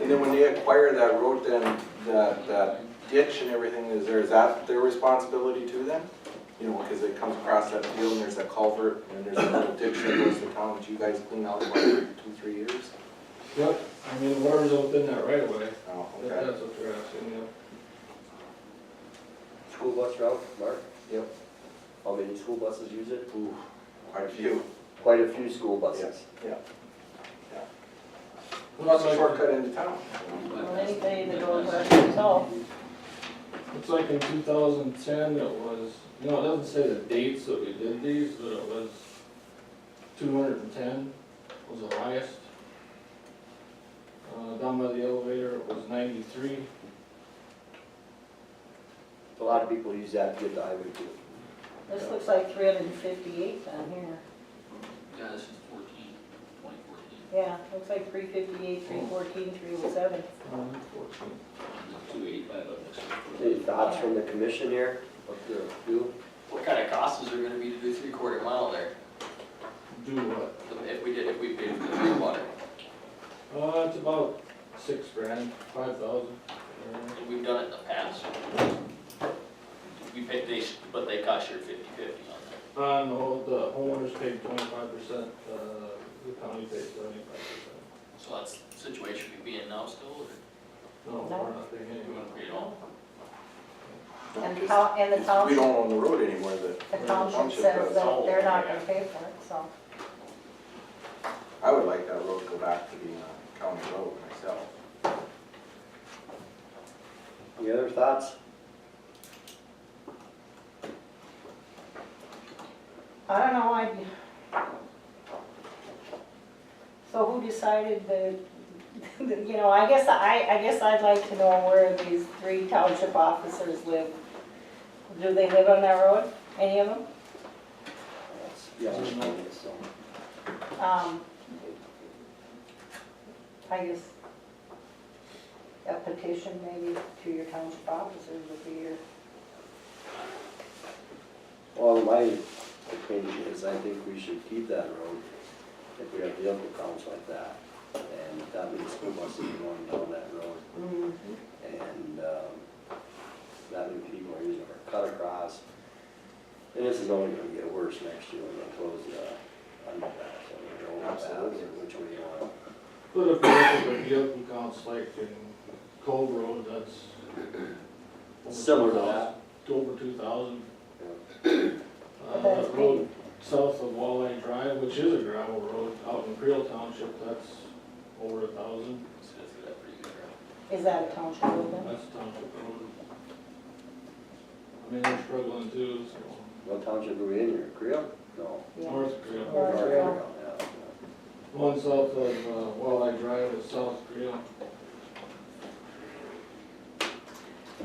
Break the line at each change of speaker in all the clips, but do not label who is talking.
And then when they acquire that road, then that, that ditch and everything is there, is that their responsibility too then? You know, because it comes across that field and there's that culvert and there's a little ditch that goes to town, that you guys clean out what, every two, three years?
Yep, I mean, whatever's within that right of way,
Oh,
that-
okay.
that's what they're asking, yeah.
School bus route, Mark?
Yep.
How many school buses use it?
Ooh, quite a few.
Quite a few school buses.
Yeah. Lots of shortcut into town.
Well, anybody that goes west itself,
It's like in two thousand ten, it was, you know, it doesn't say the dates that we did these, but it was two hundred and ten was the highest. Uh, down by the elevator, it was ninety-three.
A lot of people use that to get the highway too.
this looks like three hundred and fifty-eight down here.
Yeah, this is fourteen, twenty fourteen,
Yeah, looks like three fifty-eight, three fourteen, three oh seven.
Um, fourteen.
two eighty-five up next.
Any thoughts from the commission here? Up there, you?
What kind of cost is there gonna be to do three quarter mile there,
Do what?
if we did, if we paid for the green water?
Uh, it's about six grand, five thousand. Uh,
We've done it in the past. We paid, they, but they cost you fifty fifty on that.
Uh, no, the homeowners paid twenty-five percent, uh, the county paid seventy-five percent.
So that's the situation we be in now still, or
No,
No.
we're not paying
you
anyone.
wanna pay it all?
And the town, and the
We
town,
don't own the road anymore, that,
the township says that they're not gonna pay for it, so.
I would like that road to go back to being a county road myself.
Any other thoughts?
I don't know, I. So who decided the, you know, I guess I, I guess I'd like to know where these three township officers live. Do they live on that road, any of them?
Yeah, I'm fine with this, so.
Um, I guess a petition maybe to your township officers would be your,
Well, my opinion is I think we should keep that road if we have vehicle counts like that. And that means school buses are going down that road. and um, that many people are using our cut across. And this is only gonna get worse next year when they close the underpass, and the overpass, or which way you want.
But if you look at the vehicle counts like in Cove Road, that's. over
Similar to
2,000,
that.
Over two thousand. Uh,
But that's
that road south of Walleye Drive, which is a gravel road out in Creel Township, that's over a thousand.
So that's a pretty good route.
is that a township road then?
That's township road. I mean, they're struggling too, so.
What township are we in here, Creel? No.
Yeah.
North Creel.
North Creel.
Yeah.
One south of uh, Walleye Drive is South Creel.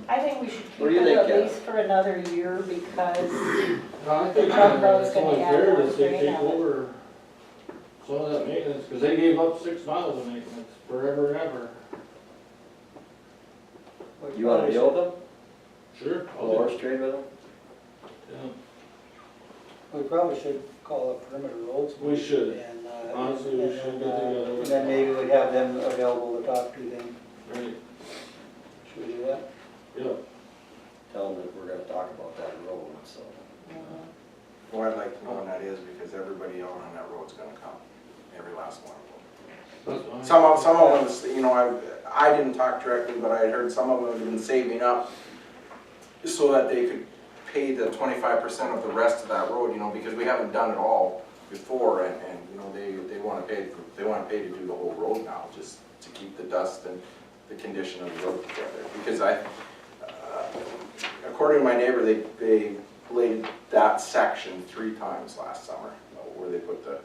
I think we should keep
What do you
it at
think, uh, Kat?
least for another year because,
I think uh,
Truck road's
it's
gonna
only
add
fair
another
that
three
they take
hours.
over some of that maintenance, because they gave up six miles of maintenance forever and ever.
You wanna build them,
Sure.
or trade with them?
We probably should call it perimeter roads.
We should.
And, uh,
Honestly, we should get
and, uh,
together.
Then maybe we'd have them available to talk to then.
Right,
Should we do that?
yeah.
Tell them that we're gonna talk about that road, so.
Well, I'd like to know when that is, because everybody out on that road's gonna come, every last one of them.
that's fine.
Some of, some of them, you know, I, I didn't talk directly, but I had heard some of them have been saving up so that they could pay the twenty-five percent of the rest of that road, you know, because we haven't done it all before, and, and, you know, they, they wanna pay, for- they wanna pay to do the whole road now, just to keep the dust and the condition of the road together, because I, uh, according to my neighbor, they, they bladed that section three times last summer, you know, where they put the,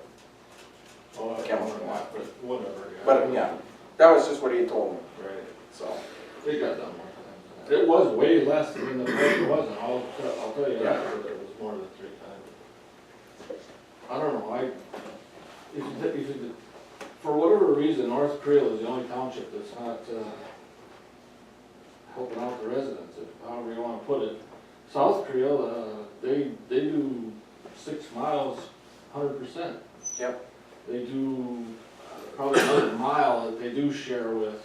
Oh, I don't know that, but whatever.
but, yeah, that was just what he told me,
Right,
so.
they got done more times. It was way less than the price it was, and I'll, te- I'll tell you that,
Yeah.
but it was more than three times. I don't know, I, if, you th- if, you th- for whatever reason, North Creel is the only township that's not, uh, helping out the residents, if- however you wanna put it. South Creel, uh, they, they do six miles, hundred percent. uh,
Yep.
They do probably another mile that they do share with